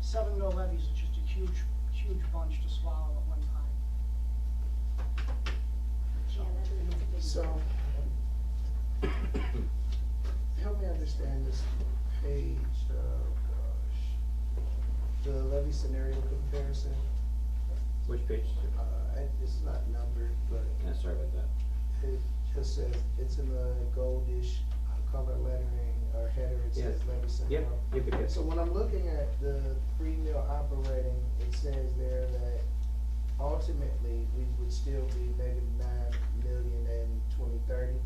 seven mill levies is just a huge, huge bunch to swallow at one time. Yeah, that is a big. So, help me understand this page, oh gosh, the levy scenario comparison. Which page? Uh, I- it's not numbered, but Yeah, Uh, sorry about that. it just says, it's in the goldish uh, color lettering or header, it says Yes. levy scenario. Yep, yep, it is. So when I'm looking at the free meal operating, it says there that ultimately, we would still be negative nine million in twenty thirty,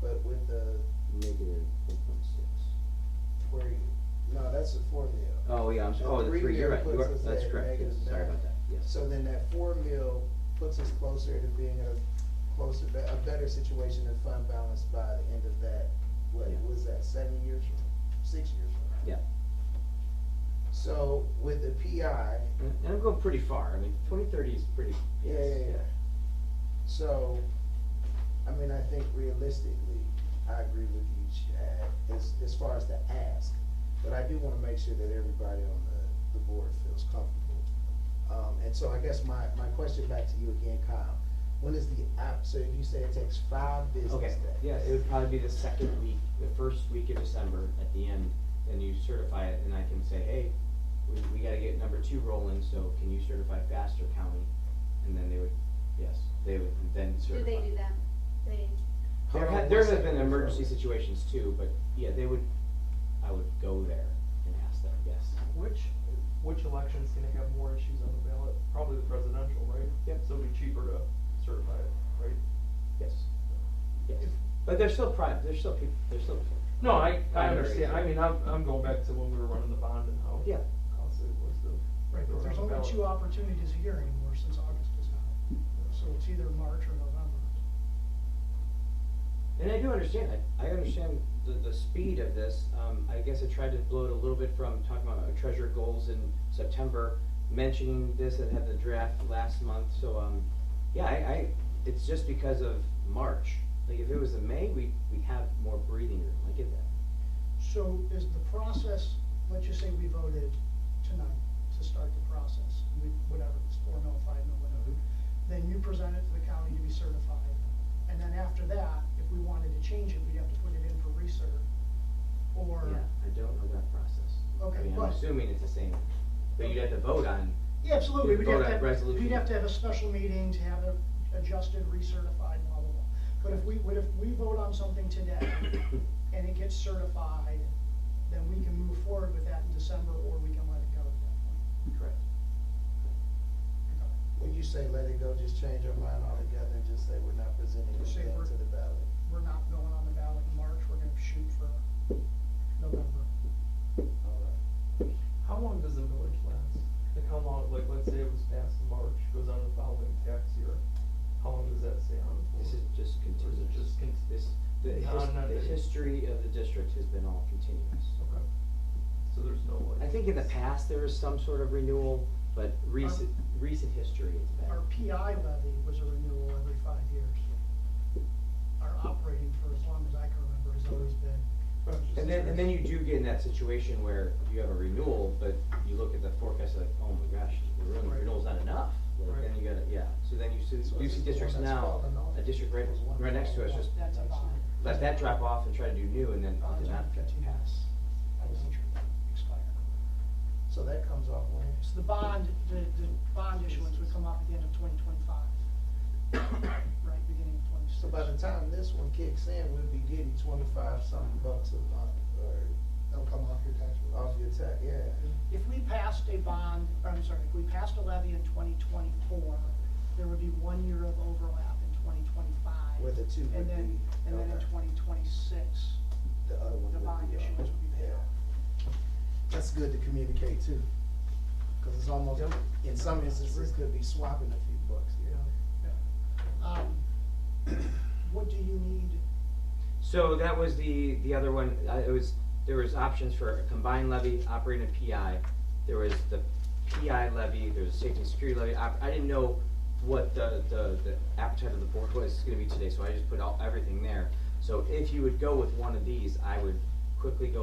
but with the, Negative one point six. where you, no, that's the four meal. Oh, yeah, I'm sorry, And oh, the three, meal you're right, you puts are, us that's at correct, yes, negative sorry nine. about that, yes. So then that four meal puts us closer to being in a closer, be- a better situation in fund balance by the end of that, what Yeah. was that, seven years from, six years from now? Yeah. So with the PI, And and I'm going pretty far, I mean, twenty thirty is pretty, Yeah, yes, yeah, yeah. yeah. So, I mean, I think realistically, I agree with you, Chad, as, as far as the ask. But I do wanna make sure that everybody on the, the board feels comfortable. Um, and so I guess my, my question back to you again, Kyle, when is the app, so if you say it takes five business Okay, days? yeah, it would probably be the second week, the first week of December at the end, then you certify it, and I can say, hey, we, we gotta get number two rolling, so can you certify faster county? And then they would, yes, they would then Do certify. they do that? They, How There long have, there was have that been before? emergency situations too, but yeah, they would, I would go there and ask them, yes. Which, which election's gonna have more issues on the ballot? Probably the presidential, right? Yep. So it'd be cheaper to certify it, right? Yes, yes, but there's still private, there's still people, there's still. No, I, I Primary, understand, yeah. I mean, I'm, I'm going back to when we were running the bond and how Yeah. costly it was to. Right, but there's run only the ballot. two opportunities a year anymore since August is out. So it's either March or November. And I do understand, I, I understand the, the speed of this, um, I guess I tried to blow it a little bit from talking about treasure goals in September, mentioning this and had the draft last month, so, um, yeah, I, I, it's just because of March. Like, if it was in May, we, we have more breathing room, I get that. So is the process, let's just say we voted tonight to start the process, we, whatever, it's four mil, five mil, whatever. Then you present it to the county to be certified, and then after that, if we wanted to change it, we'd have to put it in for recert, Yeah, or. I don't know that process. Okay, I mean, I'm but- assuming it's the same, but you'd have to vote on, Yeah, absolutely, You'd we'd vote have on to, have- resolution. we'd have to have a special meeting to have it adjusted, recertified, blah, blah, blah. But if we, would if we vote on something today and it gets certified, then we can move forward with that in December, or we can let it go at that correct. point. When you say let it go, just change our mind altogether and just say we're not presenting Just say anything we're- to the ballot. We're not going on the ballot in March, we're gonna shoot for November. All right. How long does the village last? Like how long, like, let's say it was passed in March, goes on the following tax year, how long does that stay on for? This is just Or is it continuous. just con- This, the No, his, no, the it- history of the district has been all continuous. Okay, so there's no like. I think in the past, there was some sort of renewal, but recent, recent history it's been. Our PI levy was a renewal every five years. Our operating for as long as I can remember has always been, Right, just And then, and then you curious. do get in that situation where you have a renewal, but you look at the forecast like, oh my gosh, the renew- Right. renewal's not enough. Like, then Right. you gotta, yeah, so then you see, So you is it see the districts one that's now, called annulment? a district right, There's one right next to us, called just that's a bond. let that drop off and try to do new, and then, oh, Bonds are did not get to continuous. pass. That was expired. So that comes off when? So the bond, the, the bond issuance would come off at the end of twenty twenty-five. Right, beginning of twenty-six. So by the time this one kicks in, we'll be getting twenty-five something bucks a month, or That'll come off your tax bill. off your tax, yeah. If we passed a bond, or I'm sorry, if we passed a levy in twenty twenty-four, there would be one year of overlap in twenty twenty-five. Where the two would And then, be, and then in okay. twenty twenty-six, The other one the would be bond off. issuance would be paid Yeah. off. That's good to communicate too, cause it's almost, Yep. in some instances, could be swapping a few bucks, you know? Um, What do you need? So that was the, the other one, uh, it was, there was options for a combined levy, operating a PI. There was the PI levy, there was a safety and security levy, I, I didn't know what the, the, the appetite of the board was gonna be today, so I just put all, everything there. So if you would go with one of these, I would quickly go